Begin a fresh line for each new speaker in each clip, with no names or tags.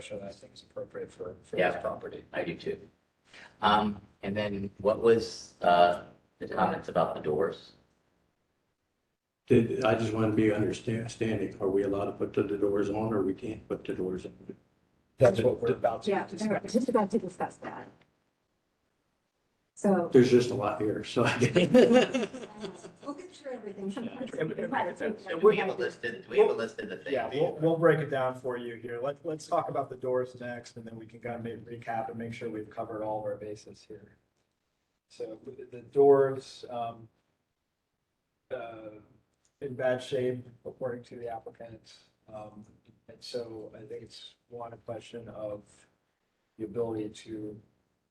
question I think is appropriate for, for this
Yeah.
property.
I do too. Um, and then what was, uh, the comments about the doors?
Did, I just want to be understanding, are we allowed to put the doors on or we can't put the doors on?
That's what we're about to
Yeah, they were
discuss.
just about to discuss that. So.
There's just a lot here, so.
We'll get through everything.
We have a list, didn't- we have a list of the things.
Yeah, we'll, we'll break it down for you here. Let, let's talk about the doors next and then we can kind of maybe recap and make sure we've covered all of our bases here. So the- the doors, um, uh, in bad shape according to the applicant. Um, and so I think it's one, a question of the ability to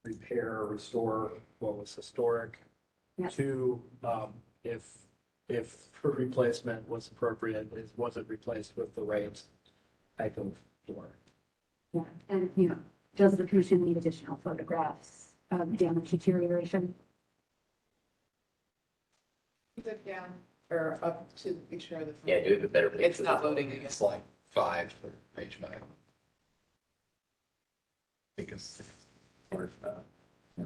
repair or restore what was historic.
Yeah.
Two, um, if, if replacement was appropriate, is, was it replaced with the right type of door?
Yeah, And, you know, does the commission need additional photographs of damage deterioration?
Click down or up to the picture of the. front.
Yeah, do we have a better. picture?
It's not loading again.
It's like five for page nine. Because. or, uh,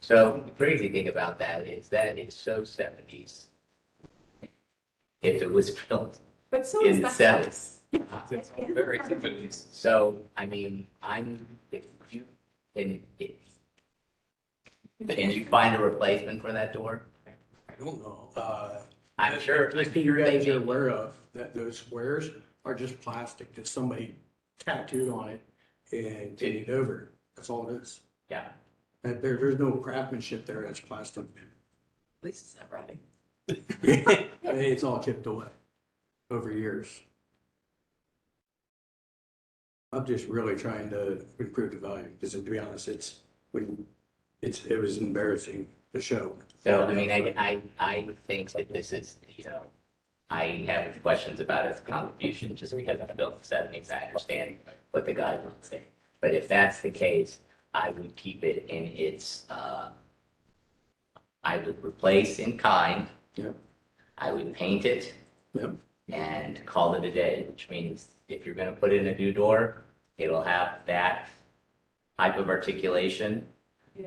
So the crazy thing about that is that is so seventies. If it was built,
But so
In
is the
cells.
house.
it's all Very seventies.
so, I mean, I'm, if you, and if. And you find a replacement for that door,
I don't know, uh.
I'm sure.
I think you guys are aware of, that those squares are just plastic that somebody tattooed on it and painted over. That's all it is.
Yeah.
And there, there's no craftsmanship there, that's plastic.
At least it's not running.
I mean, It's all chipped away over years. I'm just really trying to improve the value, because to be honest, it's, we, it's, it was embarrassing to show.
So, I mean, I, I, I think that this is, you know, I have questions about its contribution just because it's built in the seventies, I understand what the guidelines say. But if that's the case, I would keep it in its, uh, I would replace in kind.
Yep.
I would paint it.
Yep.
And call it a day, which means if you're gonna put in a new door, it'll have that type of articulation,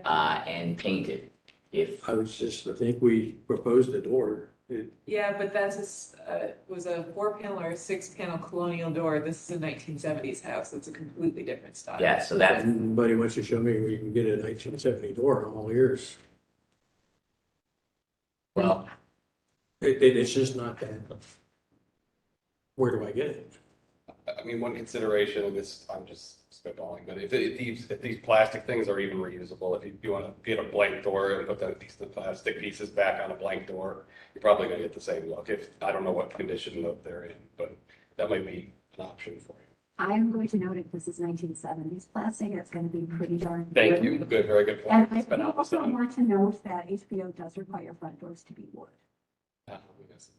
uh, and painted. If
I was just, I think we proposed the door, it,
Yeah, but that's a s uh, was a four panel or a six panel colonial door. This is a nineteen seventies house. It's a completely different style.
Yeah, so that,
anybody wants to show me where you can get a nineteen seventy door, I'm all ears.
well,
It, it, it's just not that. Where do I get it?
I mean, one consideration, and this, I'm just spitballing, but if, if these, if these plastic things are even reusable, if you, you wanna get a blank door and put that piece of plastic pieces back on a blank door, you're probably gonna get the same look, if, I don't know what condition that they're in, but that might be an option for you.
I am going to note if this is nineteen seventies plastic, it's gonna be pretty darn.
Thank you, good, very good
And
point.
I
It's been
do
out of
also
sun.
want to note that HBO does require front doors to be wood.
Uh, yes.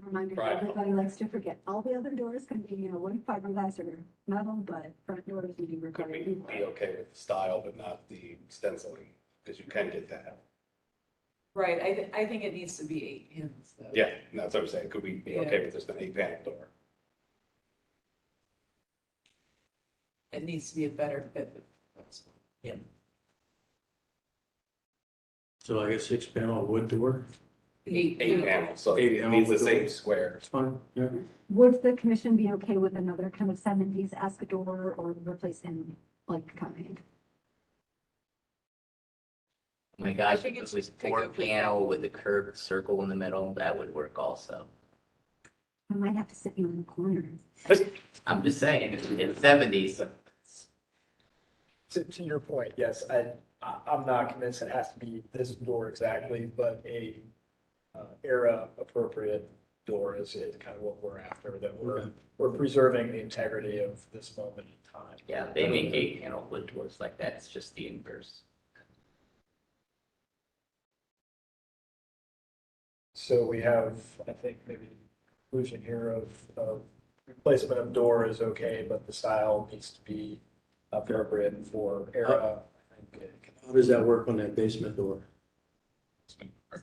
A Reminder,
Right.
everybody likes to forget, all the other doors can be, you know, wood, fiberglass or metal, but front doors would be
Could
required.
be,
to be wood.
be okay with the style, but not the stenciling, because you can get that.
Right. I, thi- I think it needs to be eight panels though.
Yeah, and that's what I'm saying, could we be okay with just an eight panel door?
It needs to be a better fit.
So like a six panel wood door,
Eight panel, so
Eight
it
panel
needs the
with
same
doors.
square.
it's fine, yeah.
Would the commission be okay with another kind of seventies esque door or replace in like kind?
oh my gosh,
I
if
think
it
it's
was
just take
four
a quick
panel with a curved circle in the middle, that would work also.
I might have to sit you in the corner.
I'm just saying, it's in seventies,
To, to your point, yes, I, I, I'm not convinced it has to be this door exactly, but a uh, era appropriate door is, is kind of what we're after, that we're, we're preserving the integrity of this moment in time.
yeah, they make eight panel wood doors like that, it's just the inverse.
So we have, I think, maybe conclusion here of, of replacement of door is okay, but the style needs to be appropriate for era. I think it can-
How does that work on that basement door?